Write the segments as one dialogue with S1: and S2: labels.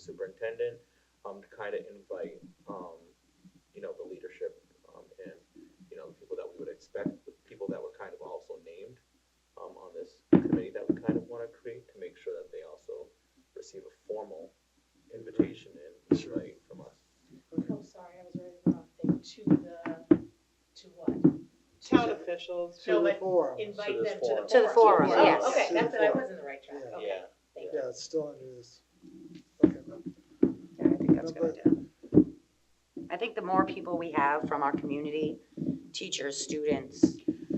S1: superintendent, um, to kind of invite, um, you know, the leadership, um, and, you know, the people that we would expect, the people that were kind of also named, um, on this committee that we kind of want to create to make sure that they also receive a formal invitation and invite from us.
S2: Oh, sorry, I was writing the wrong thing, to the, to
S3: Oh,
S2: what?
S3: Town officials
S2: No,
S3: to the
S2: but
S3: forum.
S2: invite
S1: the
S2: them to
S1: forum. To
S2: the forum.
S4: the forum,
S2: Oh,
S4: yes.
S2: Okay,
S3: To the
S2: that's it, I
S3: forum.
S2: was in the right track,
S3: Yeah.
S2: okay, thank you.
S3: Yeah, it's still under this. Okay, no,
S4: Yeah, I think that's a
S3: Number-
S4: good idea. I think the more people we have from our community, teachers, students,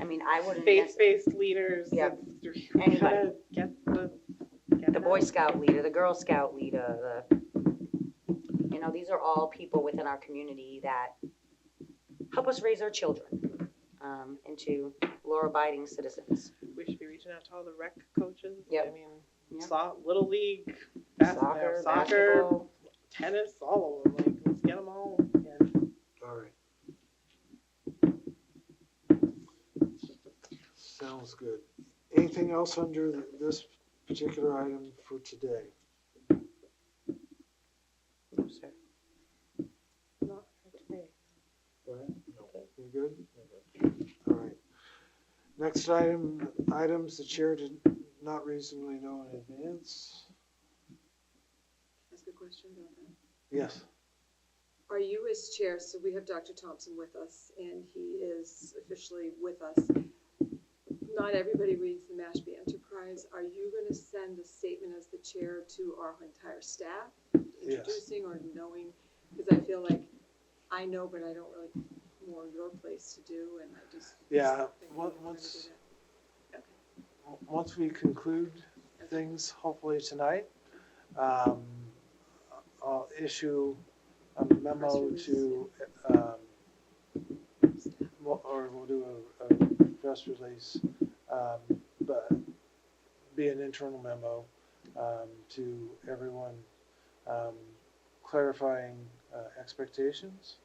S4: I mean, I wouldn't, nec-
S5: faith-based leaders.
S4: Yeah.
S5: it's-
S4: Anybody.
S5: We gotta get the. get
S4: the
S5: that.
S4: Boy Scout leader, the Girl Scout leader, the, you know, these are all people within our community that help us raise our children um, into law-abiding citizens.
S5: We should be reaching out to all the rec coaches.
S4: Yep.
S5: I mean,
S4: Yep.
S5: so, little league,
S4: Soccer,
S5: basketball, soccer,
S4: basketball,
S5: tennis, all of them, like, let's get them all.
S3: all right. Sounds good. Anything else under th- this particular item for today?
S5: Not for today.
S3: Brian? You good? All right. Next item, items the chair did not reasonably know in advance.
S6: Ask a question about that.
S3: Yes.
S6: Are you as chair, so we have Dr. Thompson with us, and he is officially with us. Not everybody reads the Mashpee Enterprise. Are you going to send a statement as the chair to our entire staff?
S3: Yes.
S6: Introducing or knowing, because I feel like I know, but I don't really, more your place to do, and I just.
S3: Yeah,
S6: think
S3: on-
S6: we're gonna
S3: once,
S6: do that. Okay.
S3: once we conclude things, hopefully tonight, um, I'll issue a memo
S6: Press release,
S3: to, um, we'll- or we'll do a, a press release, um, but be an internal memo, um, to everyone, um, clarifying, uh, expectations.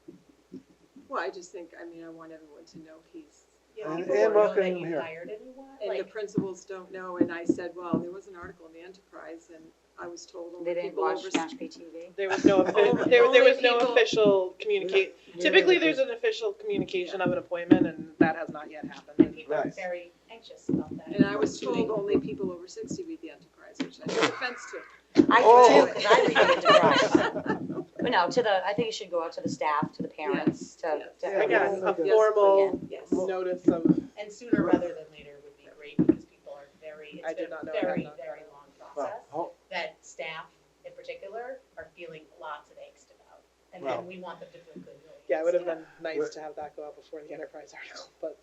S6: Well, I just think, I mean, I want everyone to know he's
S2: Yeah,
S3: And-
S2: people
S3: and
S2: wanna know
S3: welcome
S2: that you
S3: here.
S2: hired anyone,
S6: And the
S2: like,
S6: principals don't know, and I said, well, there was an article in the Enterprise, and I was told
S4: they
S6: only
S4: didn't
S6: people
S4: watch
S6: over.
S4: Mashpee TV.
S5: There was no, offi- there, there was no official communicate, typically there's an official communication of an appointment, and that has not yet
S2: and
S5: happened.
S2: people are
S3: Right.
S2: very anxious about that.
S6: And I was told only people over sixty read the Enterprise, which I took offense to.
S4: I
S3: Oh.
S4: do too, because I read it to Bryce. But no, to the, I think it should go out to the staff, to the parents, to,
S6: Yes,
S4: to
S3: yes.
S4: everyone.
S5: Again,
S3: Yes.
S5: a
S3: Yes.
S5: formal
S6: Yes,
S5: notice of,
S2: And sooner rather than later would be great, because people are very,
S5: I
S2: it's
S5: did
S2: been
S5: not
S2: a
S5: know I had
S2: very,
S5: not
S2: very
S5: done
S2: long
S3: Well,
S2: process,
S3: ho-
S2: that staff in particular are feeling lots of angst about. And
S3: Well.
S2: then we want them to feel good. really.
S5: yeah, it would have been nice to have that go out before the enterprise article, but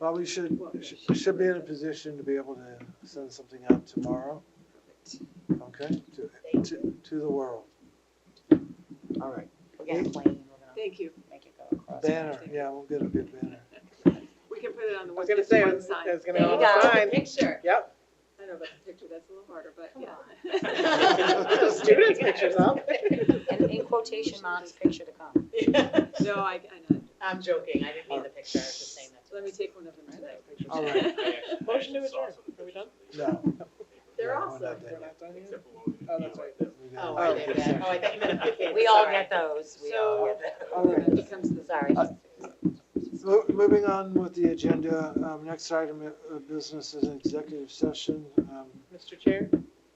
S3: Well, we should,
S6: Well,
S3: should- should be in a position to be able to send something out tomorrow,
S6: perfect.
S3: okay, to,
S2: Thank you.
S3: to, to the world. All right,
S4: We're getting plain, we're gonna
S6: Thank you.
S4: make it go across.
S3: banner, yeah, we'll get a good banner.
S6: We can put it on
S5: I
S6: the one
S5: was gonna say, I
S6: fifty-one
S5: was I
S6: sign.
S5: was gonna
S2: There
S5: go
S2: you
S5: on
S2: go,
S5: the
S2: the
S5: sign.
S2: picture.
S5: Yep,
S6: I don't know about the picture, that's a little harder, but
S2: Come
S3: on.
S5: the
S6: yeah.
S5: students' pictures up.
S4: And in quotation, mom's picture to come.
S6: No, I, I know,
S2: I'm joking, I didn't mean the picture, I was just saying that. to
S6: let me take one of them tonight.
S3: All right.
S5: Motion to adjourn. Are we done?
S3: No.
S2: They're
S3: no,
S2: all
S3: we're
S2: so
S3: not
S5: We're
S3: done yet.
S5: not done yet?
S7: Except for what we
S5: Oh, that's right.
S3: We got-
S2: Oh, are they
S3: Oh.
S2: bad? Oh, I Oh, thought you meant the kids.
S4: We all
S2: sorry.
S4: get those, we all get those.
S3: All right.
S6: That becomes the.
S4: Sorry.
S3: Mo- Moving on with the agenda, um, next item of business is an executive session. Um,
S5: Mr. Chair,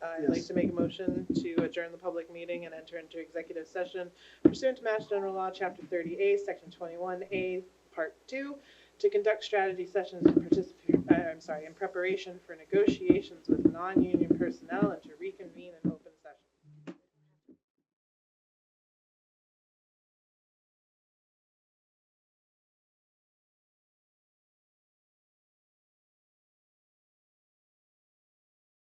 S5: I'd like
S3: Yes.
S5: to make a motion to adjourn the public meeting and enter into executive session pursuant to Mass General Law, Chapter 30A, Section 21A, Part 2, to conduct strategy uh, sessions and participate, I'm sorry, in preparation for negotiations with non-union personnel and to